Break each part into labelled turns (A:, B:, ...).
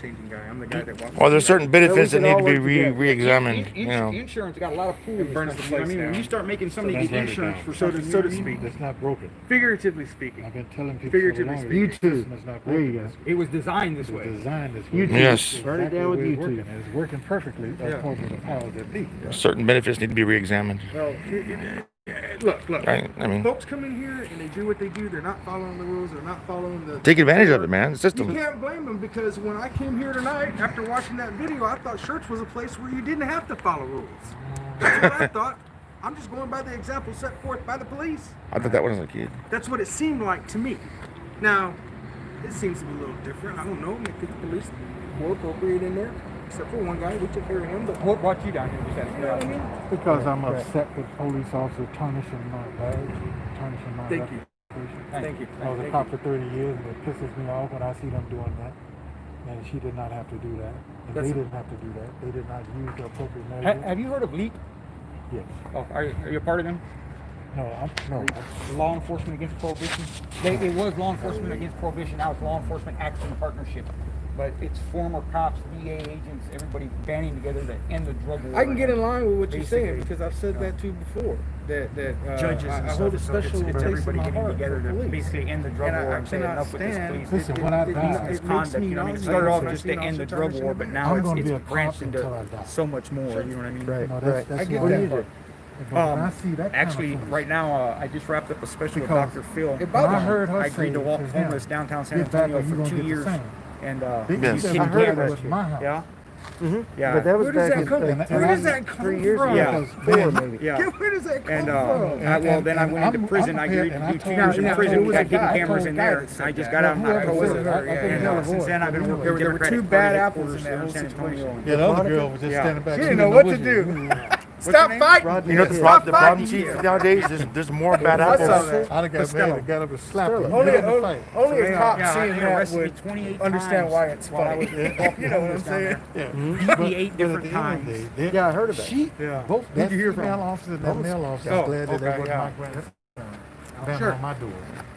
A: changing guy. I'm the guy that walks.
B: Well, there's certain benefits that
C: can
B: need to
C: all
B: be
C: work
B: re-
C: together.
B: re-examined, you
C: Ins-
B: know.
C: Insurance got a lot of pools.
A: It burns
C: and
A: the
C: stuff, you know what
A: place
C: I mean, when
A: down.
C: you start making somebody
D: that's
C: get
D: burning it
C: insurance
D: down.
C: for
A: So to-
C: something,
A: so
C: you
A: to
C: know what I mean?
A: speak.
D: That's not broken.
A: Figuratively
D: I've
A: speaking,
D: been telling people for the
A: Figuratively
D: longest,
A: speaking.
D: this system is not
C: There you
D: broken.
C: go. It was designed this way.
D: It's designed this
C: You
D: way.
C: two.
B: Yes.
C: Burn it
D: Exactly
C: down
D: the
C: with
D: way
C: you
D: it's working.
C: two.
D: and It's working perfectly
A: Yeah.
D: according to the powers that be.
B: Certain benefits need to be re-examined.
A: well, it- it- it- look, look.
B: Right? I mean,
A: Folks come in here and they do what they do. They're not following the rules. They're not following the.
B: take advantage of it, man. The
A: You
B: system.
A: can't blame them because when I came here tonight, after watching that video, I thought church was a place where you didn't have to follow rules. That's what I thought. I'm just going by the example set forth by the police.
B: I thought that was a kid.
A: That's what it seemed like to me. Now, it seems to be a little different. I don't know. Maybe the police more appropriate in there, except for one guy. We took care of him, but
C: What brought you down here? besides
A: you know what I mean?
D: Because I'm upset with police officer tarnishing my badge, tarnishing my
A: Thank you.
D: reputation.
A: Thank you.
D: I was a
A: Thank
D: cop for 30 years, and it pisses me off when I see them doing that. And she did not have to do that. And
A: That's-
D: they didn't have to do that. They did not use the appropriate
C: Ha-
D: measures.
C: have you heard of LEAP?
D: Yes.
C: Oh, are, you- are you a part of them?
D: No, I'm, no.
C: Law Enforcement Against Prohibition. They, it was Law Enforcement Against Prohibition. Now it's Law Enforcement Action Partnership. But it's former cops, DA agents, everybody banding together to end the drug war. Uh,
A: I can get in line with what you're saying
C: Basically,
A: because I've said that to you before. That that uh,
E: Judges
A: I,
E: and
A: I
E: stuff,
A: hold a
E: so it's-
A: special
E: it's
A: taste in
C: Everybody
A: my
C: getting
A: heart for
C: together to
A: police.
C: basically end the drug
A: And I-
C: war
A: I
C: and say enough with this,
A: cannot
C: please.
D: Listen, when I die-
C: It's
D: It's
C: conduct, you know what I mean? It started off just to end the drug war, but now
D: I'm
C: it's,
D: gonna be a
C: it's
D: cop
C: branched
D: until I
C: into
D: die.
C: so much more, you know what I mean?
A: Right.
D: No,
A: Right.
D: that's, that's
A: I get
D: why-
A: that part.
D: But when I
C: Um,
D: see that kind of
C: actually,
D: foolishness-
C: right now, uh, I just wrapped up a special with
D: Because
C: Dr. Phil.
A: it
D: When
A: bothers
D: I heard her
C: I agreed
D: say
C: to walk
D: to him,
C: homeless downtown San
D: "Get back
C: Antonio
D: or you
C: for
D: gonna
C: two
D: get the
C: years,
D: same."
C: and, uh,
D: They
B: Yes.
D: said,
C: he
D: I
C: didn't
D: heard
C: get
D: it was
C: arrested.
D: my house.
C: Yeah,
E: But that
C: yeah,
E: was
A: Where does
E: back
A: that
E: in
A: come-
E: uh,
A: where does that
E: three
A: come
E: years ago,
A: from?
C: Yeah.
E: four maybe.
C: yeah.
A: Where does that come
C: And, uh,
A: from?
C: I, well,
D: And-
C: then I
D: and-
C: went
D: and
C: into
D: I'm-
C: prison.
D: I'm
C: I agreed to
D: prepared,
C: do
D: and
C: two
D: I
C: years
D: told-
C: in
D: I
C: prison.
D: told the
C: We got hidden
D: guy- I
C: cameras
D: told
C: in
D: the guy
C: there.
D: that
C: I
D: said
C: just
D: that.
C: got out.
D: Now,
C: and I
D: whoever
C: was
D: said
C: in
D: that, I
C: there,
D: think
C: and,
D: that
C: uh,
D: was
C: Since then, I've been
D: Democratic
C: working with Democratic
A: bad
C: Party
A: apples
C: headquarters
A: in that
C: in
A: whole
C: San Antonio.
A: situation.
D: Yeah, the other
E: Monica?
D: girl was just
C: Yeah.
D: standing back.
A: She didn't know what to do.
D: Mm-hmm.
A: Stop
C: name?
A: fighting!
E: Rodney
B: You know, the
E: Hill.
B: problem,
A: Stop
B: the problem,
A: fighting
B: chief,
A: here.
B: nowadays, there's, there's more bad
A: I saw
B: appostles.
A: that.
D: I'd have got mad and got up and slapped her.
A: Only,
D: Get in the
A: only,
D: fight.
A: only a cop
C: Yeah,
A: seeing
C: they
A: that
C: arrested me
A: would
C: 28
A: understand
C: times
A: why it's
C: while
A: funny.
C: I was walking
A: You know what I'm
C: homeless down
A: saying?
C: there.
D: Yeah.
C: Beat me eight different times.
E: Yeah, I heard of that.
D: She,
C: Yeah.
D: both
C: Who'd
D: that
C: you hear from?
D: female officer and that male officer,
C: Oh,
D: I'm glad that
C: okay,
D: that
C: yeah.
D: wasn't my grandson. banging
C: Sure.
D: on my door.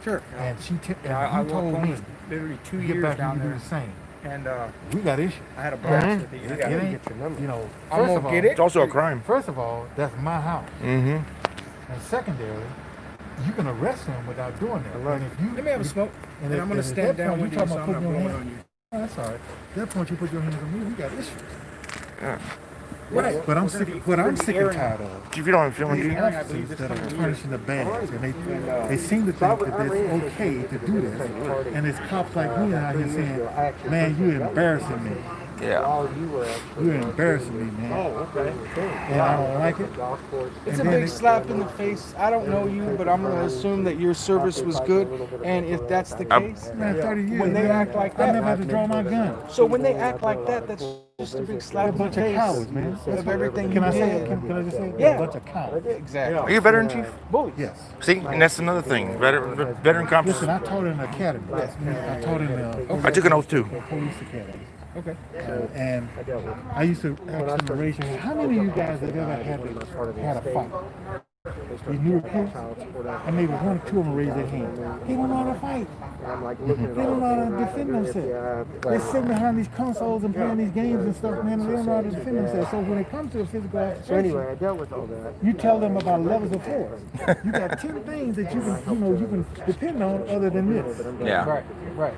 C: Sure.
D: And she, t-
C: I, I
D: and he
C: walked
D: told me,
C: homeless literally two
D: get
C: years
D: back
C: down
D: and you do
C: there,
D: the same.
C: and uh,
D: We got issues.
C: I had a blast with these
D: It
C: guys.
D: ain't,
E: your number.
D: you
A: I'm
D: know, first
A: gonna
D: of all,
A: get it.
B: It's also a crime.
D: First of all, that's my house.
B: Mm-hmm.
D: And secondarily, you can arrest them without doing that. And if you,
A: Let me have a smoke, and
D: if-
A: I'm gonna
D: if at
A: stand
D: that
A: down
D: point
A: with you
D: you
A: so I'm
D: talking
A: not
D: about putting
A: blowing
D: your
A: on you.
D: Oh, that's all right. At that point, you put your hands on me, we got issues.
A: Right.
D: But I'm
C: We're gonna
D: sick.
C: be-
D: But
C: we're
D: I'm
C: gonna be
D: sick and
C: airing-
D: tired of.
B: Chief, you don't have a feeling, do you?
D: The
C: airing, I believe,
D: officers
C: this
D: that are
C: coming
D: tarnishing the bags, and they,
C: And, uh,
D: they seem to
E: I
D: think
E: was-
D: that
E: I
D: it's
E: ran into
D: okay to
E: this
D: do
E: at the
D: this.
E: party,
D: And it's cops like
E: uh,
D: me
E: about
D: out here
E: three years ago. I
D: saying,
E: actually
D: man,
E: heard
D: you
E: that.
D: embarrassing me.
B: Yeah.
E: While Oh, you were actually
D: You
E: on
D: embarrassing
E: duty.
D: me, man.
E: Oh, okay.
D: And I don't like it.
E: Golf course.
A: It's a
D: And then
A: big
D: it-
A: slap in the face. I don't know you, but I'm gonna assume that your service was good, and if that's the
B: Um,
A: case,
D: Man, 30 years.
A: When they act like
D: I
A: that-
D: never had to draw my gun.
A: so when they act like that, that's just a big slap
D: They're
A: in
D: a
A: the
D: bunch of
A: face
D: cowards, man.
A: of everything you
D: Can I say,
A: did.
D: it? can, can I just say, it?
A: Yeah.
D: a bunch of cowards.
A: Exactly.
B: Are you a veteran, chief?
A: Bullies.
D: Yes.
B: See, and that's another thing, veteran, veteran cops.
D: Listen, I taught in the academy. I taught in the.
B: I took an oath too.
D: the Police academy.
C: Okay.
D: Uh, and I used to ask them raise your hand. How many of you guys have ever had a, had a fight? You new recruits? And maybe one or two of them raised their hand. They don't know how to fight.
E: I'm like looking at
D: Mm-hmm. They don't
E: all
D: know
E: the things I
D: how to defend
E: do if you
D: themselves.
E: have,
D: They're sitting behind these consoles and playing these games and stuff, man, and they don't know how to defend themselves. So when it comes to a physical
E: So anyway,
D: altercation,
E: I dealt with all that.
D: you tell them about levels of force. You got ten things that you can, you know, you can depend on other than this.
B: Yeah.
C: Right, right.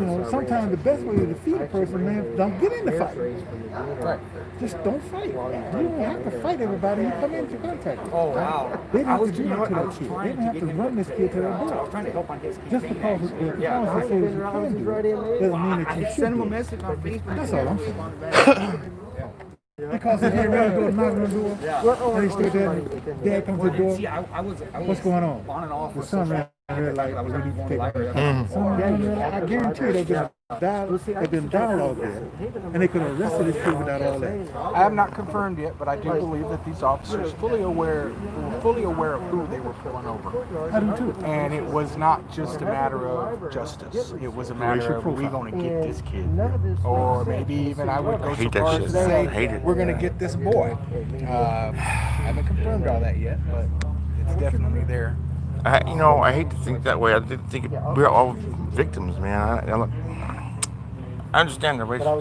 D: You know, sometimes the best way to defeat a person, man, don't get in the fight.
C: Right.
D: Just don't fight. You don't have to fight everybody you come into contact with.
C: Oh wow.
D: They didn't
C: I
D: have
C: was
D: to do
C: you know
D: that
C: what,
D: to
C: I
D: that
C: was
D: kid. They
C: trying
D: didn't
C: to
D: have
C: get
D: to
C: him
D: run this kid to the
C: I was
D: door.
C: trying to help on his campaign,
D: Just because the
C: actually.
D: the
C: Yeah.
D: policy says you can do it, doesn't mean that you should do it.
A: message on Facebook.
D: That's all I'm saying. Because if they really go knock on the door, and they stay there, and dad comes to the
C: Well,
D: door,
C: see, I, I was, I was
D: what's going on?
C: On and off.
D: The
C: with
D: sun
C: social
D: ran red light,
C: I was
D: we
C: on
D: need
C: the
D: to
C: phone
D: take
C: library.
D: Someone down there, I guarantee you they've been dialogue, they've been dialogue there, and they could have arrested this kid without all that.
A: I have not confirmed yet, but I do believe that these officers fully aware, were fully aware of who they were pulling over.
D: I do too.
A: And it was not just a matter of justice. It was a matter of, we gonna get this kid. Or maybe even I would go so
B: Hate that
A: far
B: shit.
A: as to say,
B: Hate it.
A: we're gonna get this boy. Uh, I haven't confirmed all that yet, but it's definitely there.
B: I, you know, I hate to think that way. I didn't think we're all victims, man. I, I, look- I understand their ways.